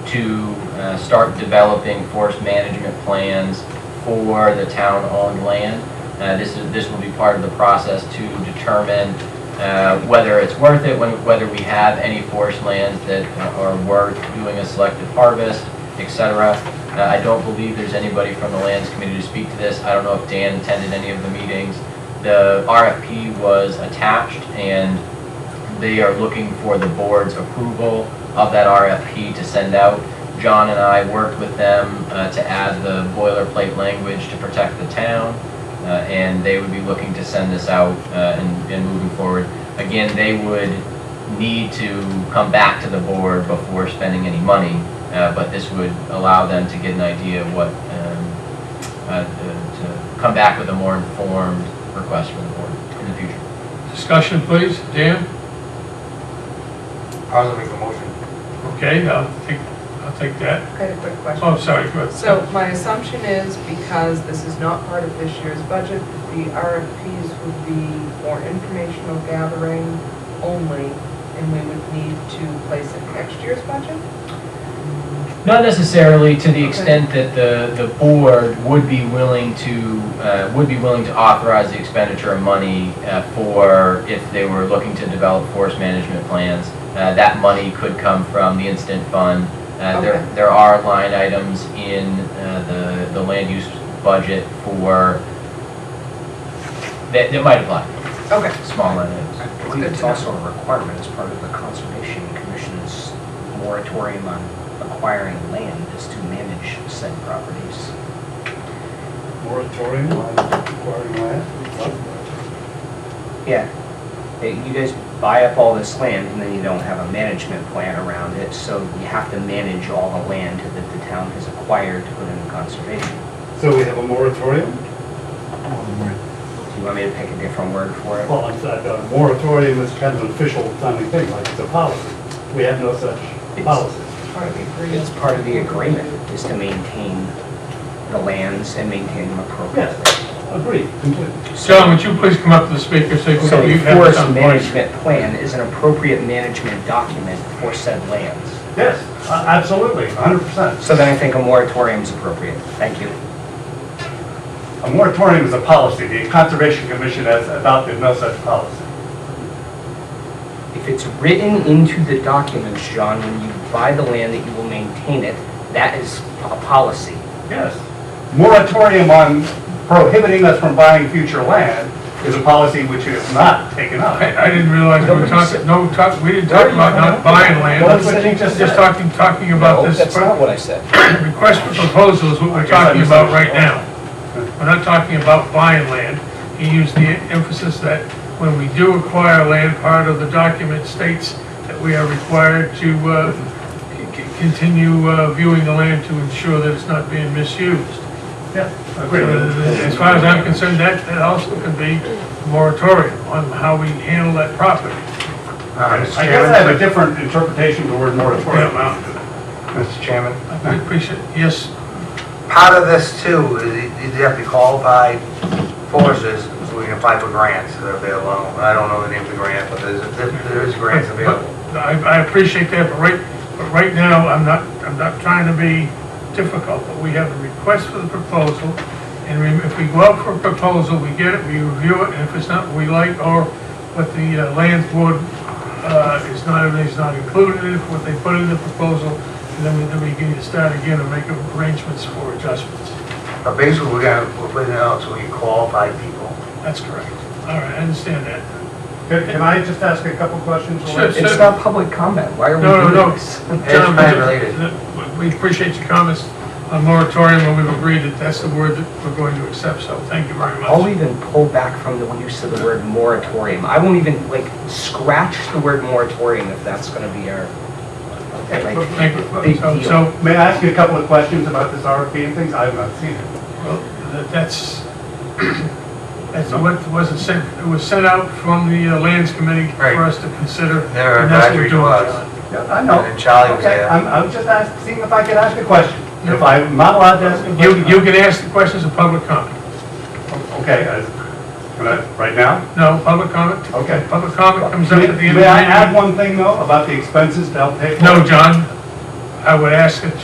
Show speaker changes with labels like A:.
A: to uh, start developing forest management plans for the town-owned land. Uh, This is, this will be part of the process to determine uh, whether it's worth it, when- whether we have any forest lands that uh, are worth doing a selective harvest, et cetera. Uh, I don't believe there's anybody from the Lands Committee to speak to this. I don't know if Dan attended any of the meetings. The RFP was attached, and they are looking for the board's approval of that RFP to send out. John and I worked with them uh, to add the boilerplate language to protect the town, uh, and they would be looking to send this out uh, and and moving forward. Again, they would need to come back to the board before spending any money, uh, but this would allow them to get an idea of what, um, uh, to to come back with a more informed request from the board in the future.
B: Discussion, please. Dan?
C: I was making a motion.
B: Okay, I'll take, I'll take that.
D: I had a quick question.
B: Oh, sorry, go ahead.
D: So my assumption is because this is not part of this year's budget, the RFPs would be for informational gathering only, and we would need to place it in next year's budget?
A: Not necessarily to the
D: Okay.
A: extent that the, the board would be willing to, uh, would be willing to authorize the expenditure of money uh, for, if they were looking to develop forest management plans. Uh, That money could come from the instant fund. Uh, There,
D: Okay.
A: there are line items in uh, the, the land use budget for, that, that might apply,
D: Okay,
A: small line items.
E: I believe it's also a requirement as part of the Conservation Commission's moratorium on acquiring land is to manage said properties.
F: moratorium on acquiring land.
E: Yeah. Hey, You guys buy up all this land and then you don't have a management plan around it, so you have to manage all the land that the town has acquired to put into conservation.
F: So we have a moratorium?
E: Do you want me to pick a different word for it?
F: Well, I thought a moratorium is kind of an official kind of thing, like it's a policy. We have no such policy.
D: part of the
E: It's
D: agreement.
E: part of the agreement, is to maintain the lands and maintain them appropriately.
F: Agreed, completely.
B: John, would you please come up to the speaker so you
E: So
B: can-
E: the
B: you have this
E: forest
B: on voice?
E: management plan is an appropriate management document for said lands.
F: Yes, a- absolutely, 100%.
E: So then I think a moratorium is appropriate. Thank you.
F: A moratorium is a policy. The Conservation Commission has adopted no such policy.
E: If it's written into the documents, John, when you buy the land that you will maintain it, that is a policy.
F: Yes. Moratorium on prohibiting us from buying future land is a policy which is not taken up.
B: I, I didn't realize we were talking, no, talk, we didn't talk about not buying land.
F: That's what you just
B: Just
F: said.
B: talking, talking about this.
E: what I said.
B: Request for proposal is what
F: I
B: we're
F: guess I
B: talking about right
F: misunderstood.
B: now. We're not talking about buying land. He used the emphasis that when we do acquire land, part of the document states that we are required to uh, c- c- continue uh, viewing the land to ensure that it's not being misused.
F: Yeah,
B: Uh, As far as I'm concerned, that, that also could be moratorium on how we handle that property.
F: I guess I have a different interpretation of the word moratorium.
G: Mr. Chairman,
B: I appreciate, yes,
G: part of this too, is you you have to call by forces, so we can apply for grants that are available. I don't know the name of the grant, but there's, there- there is grants available.
B: But I, I appreciate that, but right, but right now, I'm not, I'm not trying to be difficult, but we have a request for the proposal, and we- if we go out for a proposal, we get it, we review it, and if it's not what we like, or what the uh, land board, uh, is not, is not included in it, what they put in the proposal, and then we, then we can start again and make arrangements for adjustments.
G: But basically, we're gonna, we're putting it out so we can qualify people.
B: That's correct. All right, I understand that.
F: Can can I just ask a couple questions?
B: Sure, sure.
E: It's not public comment. Why are we
B: No,
E: doing
B: no, no.
E: this?
B: John, uh,
G: plan related.
B: We appreciate your comments on moratorium, and we've agreed that that's the word that we're going to accept, so thank you very
E: I'll
B: much.
E: even pull back from the use of the word moratorium. I won't even, like, scratch the word moratorium if that's gonna be our, like,
B: Thank you.
E: big
B: So,
E: deal.
B: so,
F: May I ask you a couple of questions about this RFP and things? I have not seen it.
B: well, that- that's, that's what wasn't sent, it was sent out from the uh, lands committee
G: Right.
B: for us to consider.
G: They're
B: and that's what we're
G: advisory
B: doing,
G: to us.
B: John.
F: Yeah, I
G: And then Charlie was
F: Okay,
G: there.
F: I'm, I'm just asking, seeing if I could ask a question. If I'm not allowed to ask a
B: You,
F: question.
B: you can ask the questions of public comment.
F: Okay, I- can I, right now?
B: No, public comment?
F: Okay.
B: Public comment comes up
F: May
B: at the end of the
F: may I add
B: meeting.
F: one thing though about the expenses to help pay for? it?
B: No, John, I would ask that